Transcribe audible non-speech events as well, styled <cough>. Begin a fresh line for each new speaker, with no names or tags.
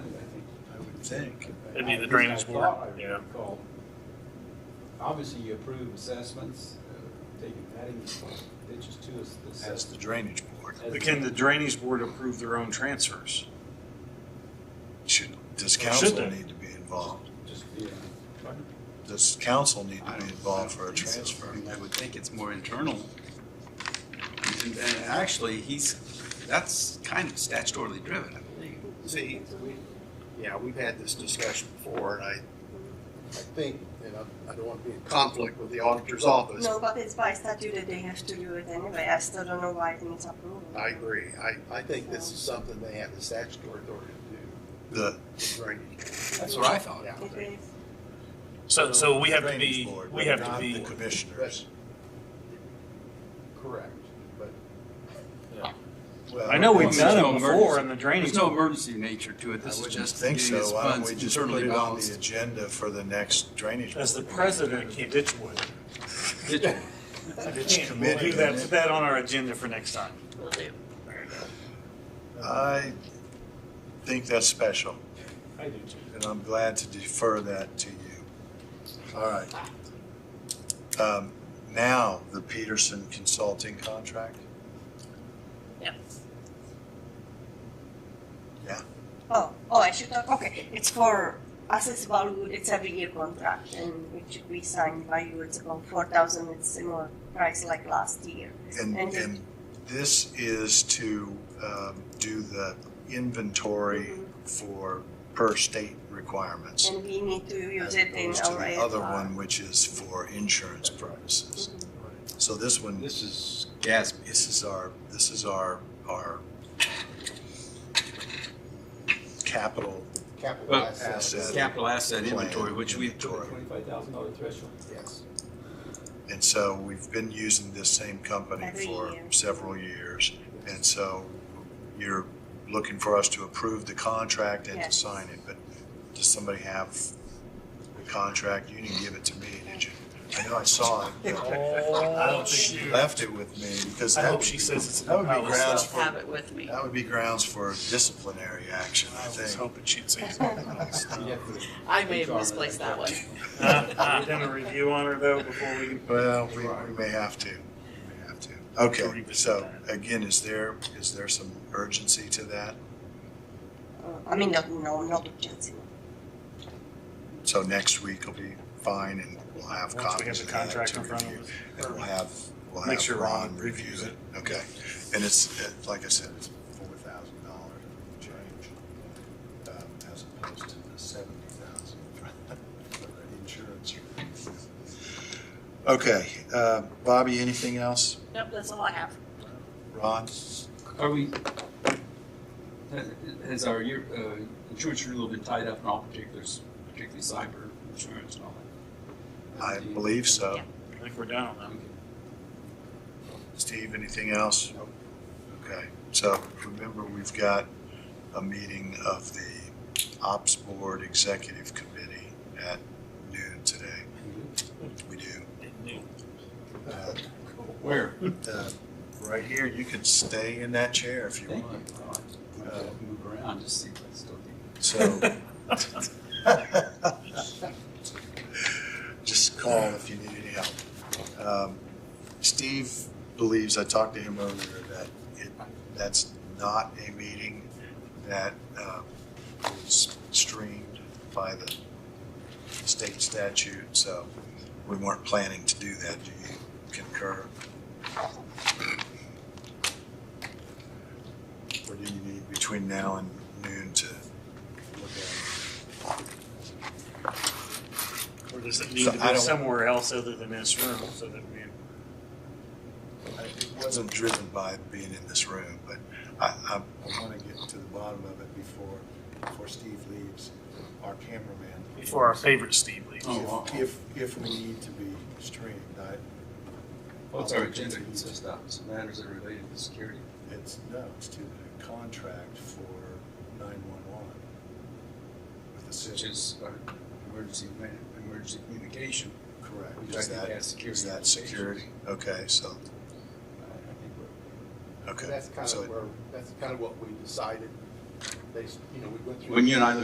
think.
It'd be the
uh,
drainage board, yeah.
Obviously, you approve assessments, uh, taking adding ditches to us. this-
That's the drainage board.
as-
But can the drainage board approve their own transfers?
Should, does
Or should
council
they?
need to be involved?
Just, yeah.
Does council need
I don't- I
to be
don't
involved for a
think so. I
transfer?
mean, I would think it's more internal. And, and actually, he's, that's kind of statutorily driven, I believe.
See, yeah, we've had this discussion before, and I, I think, and I, I don't want to be in conflict with the auditor's office.
No, but it's by statute that they have to do it anyway. I still don't know why it needs approval.
I agree. I, I think this is something they have the statutory authority
The,
to do. Right.
That's what I thought.
It is.
So, so we have to
Drainage
be,
board,
we have to
not the
be,
Commissioners.
Correct, but
Well,
I know we've
There's
done
no
it before
emergency-
in the drainage.
There's no emergency nature to it. This is
Just
just
think
getting his
so. Why don't
funds
we just put
internally
it on the
balanced.
agenda for the next drainage?
As the
board?
president, you ditch wood.
It's
We'll
committee,
do
isn't
that,
it?
put that on our agenda for next time.
I think that's special,
I do
and I'm glad to defer that to you. All right. Um, Now, the Peterson Consulting contract?
Oh, oh, I should talk. Okay, it's for accessible wood. It's every year contract, and which we signed by you. It's about four thousand. It's similar price like last year.
And,
And-
and this is to um, do the inventory for per state requirements.
Mm-hmm. And we need to use
as
it in
opposed to
our
the
AFR.
Other one, which is for insurance purposes.
Mhm.
So this one,
This is gas.
this is our, this is our, our capital
Capital
Well,
asset.
asset.
Capital asset inventory,
plan
which we've
inventory.
twenty-five thousand dollar threshold.
Yes.
And so we've been using this same company
Every
for
year.
several years. And so you're looking for us to approve the contract and to
Yes.
sign it, but does somebody have the contract? You didn't give it to me, did you? I know I saw it, but
Oh,
she
shoot.
left it with me because
I
that
hope
would
she
be,
says it's.
that would
I
be
was-
grounds
I'll have
for,
it with me.
that would be grounds for disciplinary action, I
I was
think.
hoping she'd say something.
You'd have to-
I may have
HR
misplaced that one.
Uh, uh, Done a review on her though before we can.
Well, we, we may have to, we may have to. Okay,
Revisit
so
that.
again, is there, is there some urgency to that?
Uh, I mean, not, no, not urgency.
So next week will be fine and we'll have
Once we
copies
have the
of that
contract
to
in front
review.
of us.
And we'll have, we'll
Make
have
sure
Ron
Ron
review
reviews
it. Okay. And it's, uh, like I said, it's four thousand dollar change, um, as opposed to the seventy thousand <laughs> for the insurance. Okay, uh, Bobby, anything else?
Nope, that's all I have.
Ron?
Are we, has our year, uh, insurance rule been tied up in all particulars, particularly cyber insurance and all that?
I believe so.
Yeah.
I think we're done on that.
Okay.
Steve, anything else? Okay, so remember, we've got a meeting of the Ops Board Executive Committee at noon today. We do. Uh,
Where?
uh, Right here, you can stay in that chair if you
Thank
want.
you. All right. I'll uh, Move around, just see what's still there.
So. <laughs> Just call if you need any help. Um, Steve believes, I talked to him earlier, that it, that's not a meeting that um, is streamed by the state statute, so we weren't planning to do that. Do you concur? Or do you need between now and noon to look at it?
Or does it need
So
to
I
be
don't-
somewhere else other than this room so that we,
It wasn't driven by being in this room, but I, I. I want to get to the bottom of it before, before Steve leaves, our cameraman.
before our favorite Steve leaves?
Oh, wow.
If, if we need to be streamed, I,
What's our agenda consist of? Some matters that are related to security.
it's, no, it's to the contract for nine-one-one with the
such
city.
as our emergency, man- emergency communication.
Correct.
Which I
Is
think
that,
has security
is that
implications.
security? Okay, so,
I- I think we're-
okay.
That's kind
So
of where, that's kind of what we decided, based, you know, we went through.
When you and I